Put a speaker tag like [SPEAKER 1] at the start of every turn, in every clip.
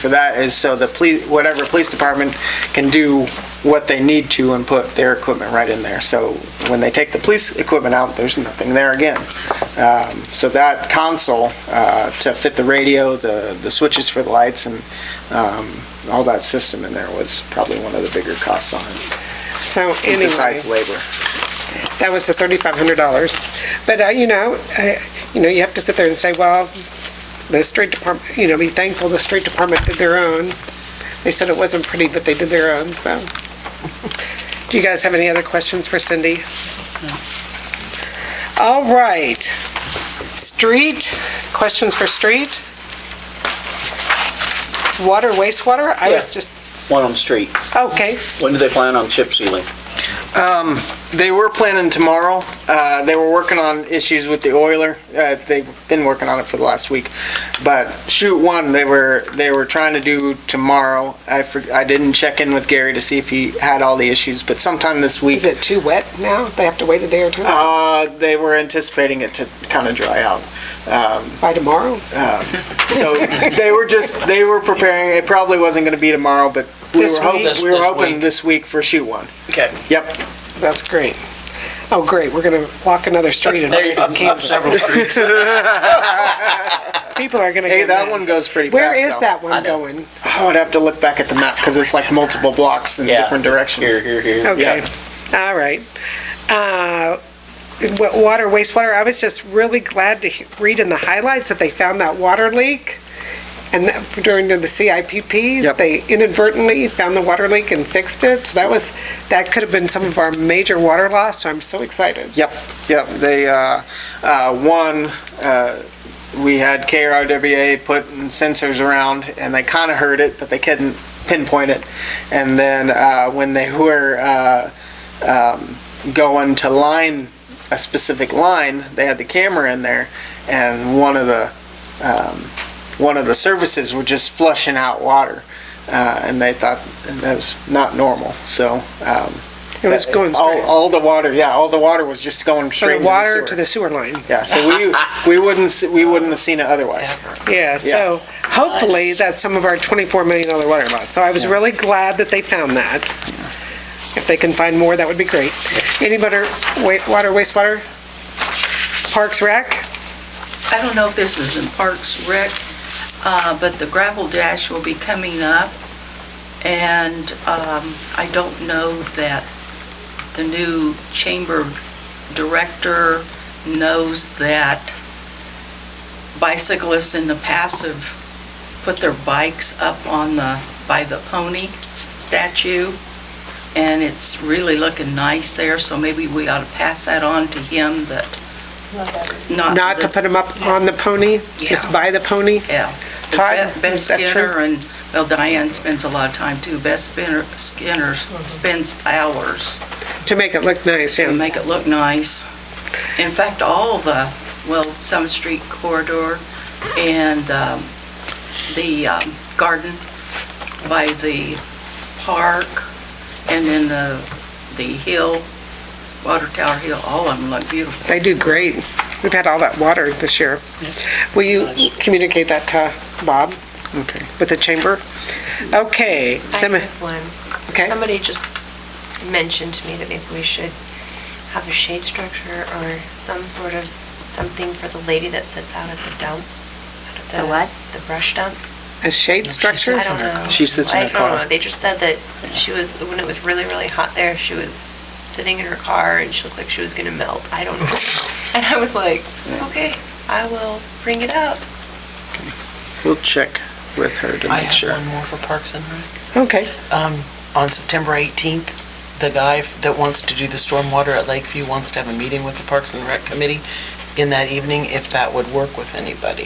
[SPEAKER 1] for that is so the police, whatever police department can do what they need to and put their equipment right in there. So when they take the police equipment out, there's nothing there again. Um, So that console uh, to fit the radio, the, the switches for the lights and um, all that system in there was probably one of the bigger costs on it,
[SPEAKER 2] So anyway,
[SPEAKER 1] besides labor.
[SPEAKER 2] that was the thirty-five hundred dollars. But, uh, you know, uh, you know, you have to sit there and say, well, the street department, you know, be thankful the street department did their own. They said it wasn't pretty, but they did their own, so. Do you guys have any other questions for Cindy? All right. Street, questions for street? Water, wastewater? I was
[SPEAKER 3] Yeah.
[SPEAKER 2] just,
[SPEAKER 3] One on the street.
[SPEAKER 2] okay,
[SPEAKER 3] When do they plan on chip sealing?
[SPEAKER 1] They were planning tomorrow. Uh, they were working on issues with the oiler. Uh, they've been working on it for the last week. But shoot one, they were they were trying to do tomorrow. I for, I didn't check in with Gary to see if he had all the issues, but sometime this week.
[SPEAKER 2] Is it too wet now? They have to wait a day or two?
[SPEAKER 1] Uh, they were anticipating it to kind of dry out. Um,
[SPEAKER 2] By tomorrow?
[SPEAKER 1] so they were just they were preparing. It probably wasn't going to be tomorrow, but we
[SPEAKER 2] This
[SPEAKER 1] were hoping
[SPEAKER 2] week?
[SPEAKER 3] This-
[SPEAKER 1] we were
[SPEAKER 3] this
[SPEAKER 1] hoping
[SPEAKER 3] week.
[SPEAKER 1] this week for shoot one.
[SPEAKER 3] Okay.
[SPEAKER 1] Yep.
[SPEAKER 2] That's great. Oh, great, we're gonna block another street in
[SPEAKER 3] There,
[SPEAKER 2] Arlington,
[SPEAKER 3] up, up
[SPEAKER 2] Kansas.
[SPEAKER 3] several streets.
[SPEAKER 2] People are gonna
[SPEAKER 1] Hey,
[SPEAKER 2] go
[SPEAKER 1] that
[SPEAKER 2] mad.
[SPEAKER 1] one goes pretty
[SPEAKER 2] Where
[SPEAKER 1] fast.
[SPEAKER 2] is
[SPEAKER 1] though.
[SPEAKER 2] that
[SPEAKER 3] I
[SPEAKER 2] one
[SPEAKER 3] know.
[SPEAKER 2] going?
[SPEAKER 1] I would Oh, have to look back at the map because it's like multiple blocks in
[SPEAKER 3] Yeah.
[SPEAKER 1] different
[SPEAKER 3] Here,
[SPEAKER 1] directions.
[SPEAKER 3] here, here.
[SPEAKER 2] Okay,
[SPEAKER 1] Yeah.
[SPEAKER 2] all right. Uh, wa- Water, wastewater, I was just really glad to he- read in the highlights that they found that water leak. And that during the CIPP,
[SPEAKER 1] Yep.
[SPEAKER 2] they inadvertently found the water leak and fixed it. So That was, that could have been some of our major water loss, so I'm so excited.
[SPEAKER 1] Yep, yep. They, uh, uh, one, uh, we had KRWA putting sensors around and they kind of heard it, but they couldn't pinpoint it. And then uh, when they were uh, um, going to line a specific line, they had the camera in there and one of the um, one of the services were just flushing out water. Uh, and they thought that was not normal. So um,
[SPEAKER 2] It was going
[SPEAKER 1] all,
[SPEAKER 2] straight.
[SPEAKER 1] all the water, yeah, all the water was just going
[SPEAKER 2] From
[SPEAKER 1] straight
[SPEAKER 2] the water to
[SPEAKER 1] sewer.
[SPEAKER 2] the sewer line.
[SPEAKER 1] Yeah, so we we wouldn't s- we wouldn't have seen it otherwise.
[SPEAKER 2] Yeah, so hopefully
[SPEAKER 3] Nice.
[SPEAKER 2] that's some of our $24 million water loss. So I was really glad that they found that. If they can find more, that would be great. Any better wa- water, wastewater? Parks Rec?
[SPEAKER 4] I don't know if this is in Parks Rec, uh, but the gravel dash will be coming up, and um, I don't know that the new chamber director knows that bicyclists in the past have put their bikes up on the, by the pony statue, and it's really looking nice there, so maybe we ought to pass that on to him that
[SPEAKER 5] Uh,
[SPEAKER 4] not...
[SPEAKER 2] Not to put them up on the pony, just
[SPEAKER 4] Yeah.
[SPEAKER 2] by the pony?
[SPEAKER 4] Yeah.
[SPEAKER 2] Todd,
[SPEAKER 4] Beth Beth
[SPEAKER 2] is that true?
[SPEAKER 4] Skinner and, well, Diane spends a lot of time too. Beth Spinner- Skinner spends hours
[SPEAKER 2] To make it look nice,
[SPEAKER 4] to
[SPEAKER 2] yeah.
[SPEAKER 4] make it look nice. In fact, all the, well, Summit Street corridor and um, the um, garden by the park and then the, the hill, Water Tower Hill, all of them look beautiful.
[SPEAKER 2] They do great. We've had all that water this year. Will you communicate that to Bob? Okay. With the chamber? Okay.
[SPEAKER 5] I
[SPEAKER 2] Semi-
[SPEAKER 5] have one.
[SPEAKER 2] Okay.
[SPEAKER 5] Somebody just mentioned to me that maybe we should have a shade structure or some sort of something for the lady that sits out at the dump. out at
[SPEAKER 6] The what?
[SPEAKER 5] The brush dump.
[SPEAKER 2] A shade structure?
[SPEAKER 5] I don't know.
[SPEAKER 3] She sits in her
[SPEAKER 5] I don't
[SPEAKER 3] car.
[SPEAKER 5] know, they just said that she was, when it was really, really hot there, she was sitting in her car and she looked like she was gonna melt. I don't know. And I was like, okay, I will bring it up.
[SPEAKER 1] We'll check with her to
[SPEAKER 7] I
[SPEAKER 1] make
[SPEAKER 7] have
[SPEAKER 1] sure.
[SPEAKER 7] one more for Parks and Rec.
[SPEAKER 2] Okay.
[SPEAKER 7] Um, on September 18th, the guy f- that wants to do the stormwater at Lakeview wants to have a meeting with the Parks and Rec Committee in that evening, if that would work with anybody.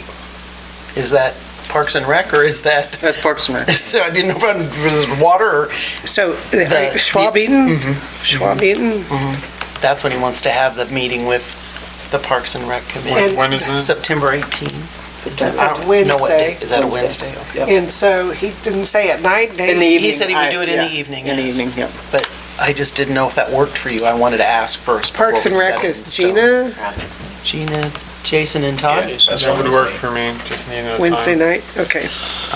[SPEAKER 7] Is that Parks and Rec, or is that,
[SPEAKER 1] That's Parks and Rec.
[SPEAKER 7] so I didn't know if it was water, or,
[SPEAKER 2] So
[SPEAKER 7] The- mm-hmm.
[SPEAKER 2] uh, Schwab Eaton, Schwab Eaton,
[SPEAKER 7] that's when he wants to have the meeting with the Parks and Rec Committee.
[SPEAKER 8] When is it?
[SPEAKER 7] September 18th.
[SPEAKER 2] That's
[SPEAKER 7] I
[SPEAKER 2] on
[SPEAKER 7] don't know what day-
[SPEAKER 2] Wednesday.
[SPEAKER 7] Is that a Wednesday? Okay.
[SPEAKER 2] and so he didn't say at night,
[SPEAKER 1] In the
[SPEAKER 2] Dave.
[SPEAKER 1] evening.
[SPEAKER 7] He said he would
[SPEAKER 1] I-
[SPEAKER 7] do it in the
[SPEAKER 1] yeah,
[SPEAKER 7] evening,
[SPEAKER 1] In the
[SPEAKER 7] yes.
[SPEAKER 1] evening, yep.
[SPEAKER 7] I just didn't know if that worked for you. I wanted to ask first. before
[SPEAKER 2] Parks and
[SPEAKER 7] we
[SPEAKER 2] Rec
[SPEAKER 7] set it in
[SPEAKER 2] is
[SPEAKER 7] stone.
[SPEAKER 2] Gina,
[SPEAKER 7] Gina, Jason, and Todd?
[SPEAKER 8] That would work for me, just need a time.
[SPEAKER 2] Wednesday night, okay.